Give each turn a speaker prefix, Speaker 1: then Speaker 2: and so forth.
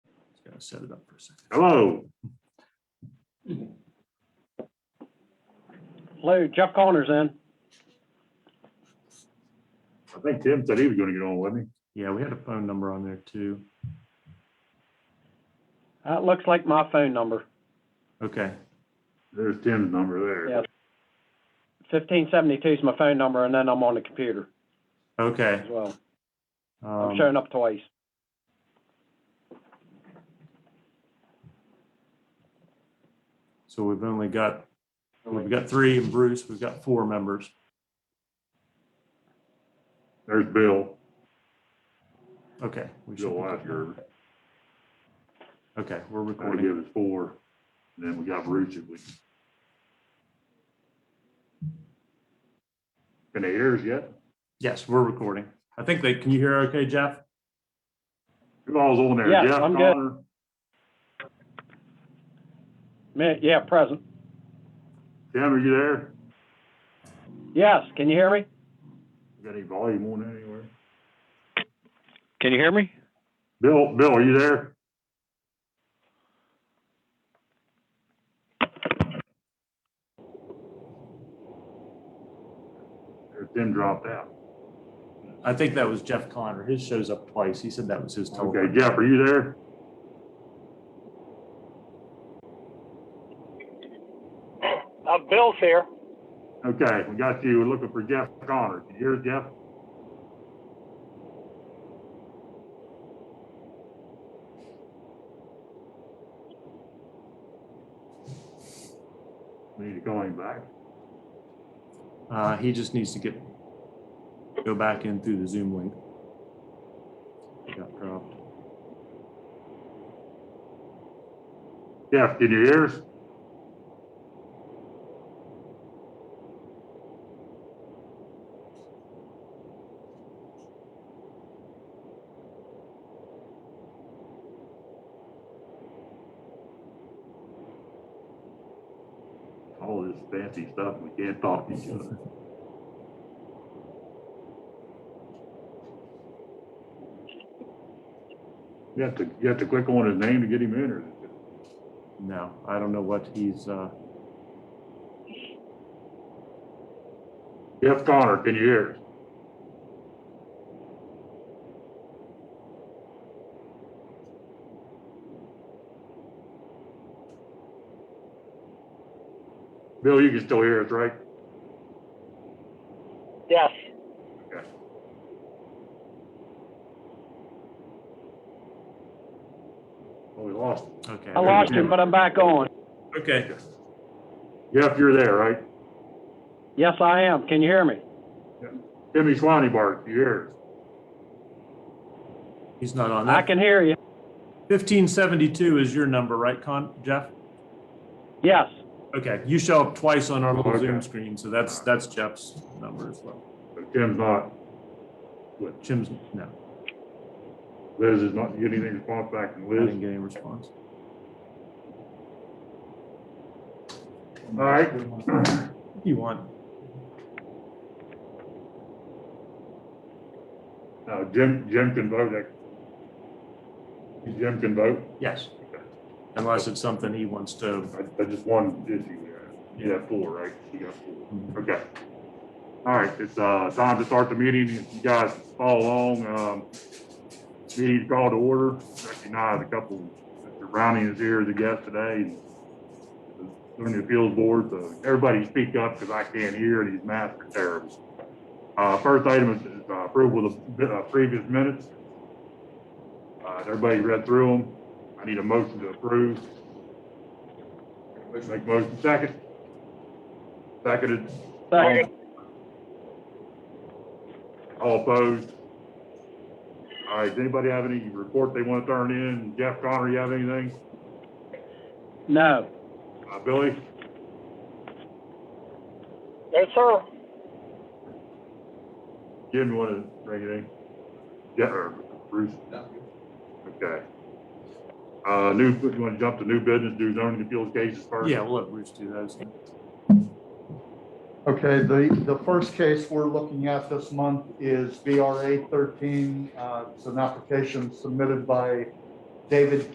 Speaker 1: Gotta set it up for a second.
Speaker 2: Hello,
Speaker 3: Lou, Jeff Connor's in.
Speaker 2: I think Tim said he was gonna get on with me.
Speaker 1: Yeah, we had a phone number on there too.
Speaker 3: That looks like my phone number,
Speaker 1: Okay,
Speaker 2: There's Tim's number there.
Speaker 3: Yeah. fifteen seventy-two is my phone number, and then I'm on the computer
Speaker 1: okay.
Speaker 3: as well. I'm
Speaker 1: Um,
Speaker 3: showing up twice.
Speaker 1: So we've only got, we've got three and Bruce, we've got four members.
Speaker 2: There's Bill.
Speaker 1: Okay. we should
Speaker 2: Bill
Speaker 1: be good.
Speaker 2: Lasker,
Speaker 1: Okay, we're
Speaker 2: that'll
Speaker 1: recording.
Speaker 2: give us four. And Then we got Bruce if we. Can they hear us yet?
Speaker 1: Yes, we're recording. I think they, can you hear okay, Jeff?
Speaker 2: Who all's on there?
Speaker 3: Yeah,
Speaker 2: Jeff
Speaker 3: I'm good.
Speaker 2: Connor,
Speaker 3: Me- Yeah, present.
Speaker 2: Tim, are you there?
Speaker 3: Yes, can you hear me?
Speaker 2: Got any volume on anywhere?
Speaker 4: Can you hear me?
Speaker 2: Bill, Bill, are you there? There's Tim dropped out.
Speaker 1: I think that was Jeff Connor. His shows up twice. He said that was his
Speaker 2: Okay,
Speaker 1: telephone.
Speaker 2: Jeff, are you there?
Speaker 5: Uh, Bill's here.
Speaker 2: Okay, we got you. We're looking for Jeff Connor. Can you hear us, Jeff? We need to call him back.
Speaker 1: Uh, he just needs to get, go back in through the Zoom link. He Got dropped.
Speaker 2: Jeff, can you hear us? All this fancy stuff, we can't talk to each other. You have to, you have to click on his name to get him in, or?
Speaker 1: No, I don't know what he's, uh,
Speaker 2: Jeff Connor, can you hear us? Bill, you can still hear us, right?
Speaker 5: Yes.
Speaker 2: Oh, we lost. him.
Speaker 1: okay.
Speaker 3: I lost him, but I'm back on.
Speaker 1: Okay.
Speaker 2: Jeff, you're there, right?
Speaker 3: Yes, I am. Can you hear me?
Speaker 2: Timmy Swanee Bart, you hear
Speaker 1: He's not on
Speaker 3: I
Speaker 1: that.
Speaker 3: can hear you.
Speaker 1: Fifteen seventy-two is your number, right, Con, Jeff?
Speaker 3: Yes.
Speaker 1: Okay, you show up twice on our little Zoom
Speaker 2: Okay.
Speaker 1: screen, so that's, that's Jeff's number as well.
Speaker 2: us? But Tim's not,
Speaker 1: Jim's, no,
Speaker 2: Liz is not getting any response back from
Speaker 1: I didn't
Speaker 2: Liz.
Speaker 1: get any response.
Speaker 2: All right.
Speaker 1: You want,
Speaker 2: Now, Jim, Jim can vote. eh? Jim can vote.
Speaker 1: yes. Unless it's something he wants to,
Speaker 2: I, I just one issue there. You have four, right? You got
Speaker 1: Mhm.
Speaker 2: four. Okay. All right, it's, uh, time to start the meeting. If you guys follow along, um, meeting's called to order. Recognize a couple, Mr. Browning is here as a guest today. and Doing the appeals board, so everybody speak up because I can't hear and these masks are terrible. Uh, first item is is, uh, approval of the uh, previous minutes. Uh, everybody read through them. I need a motion to approve. Make motion second. Seconded,
Speaker 3: Second.
Speaker 2: all opposed. All right, does anybody have any report they want to turn in? Jeff Connor, you have anything?
Speaker 3: No.
Speaker 2: Uh, Billy?
Speaker 5: Yes, sir.
Speaker 2: Jim, you want to bring anything? Yeah, or Bruce? Okay. Uh, new, you want to jump to new business, do zoning appeals cases first?
Speaker 1: yeah, we'll let Bruce do those.
Speaker 6: Okay, the, the first case we're looking at this month is VRA 13. uh, It's an application submitted by David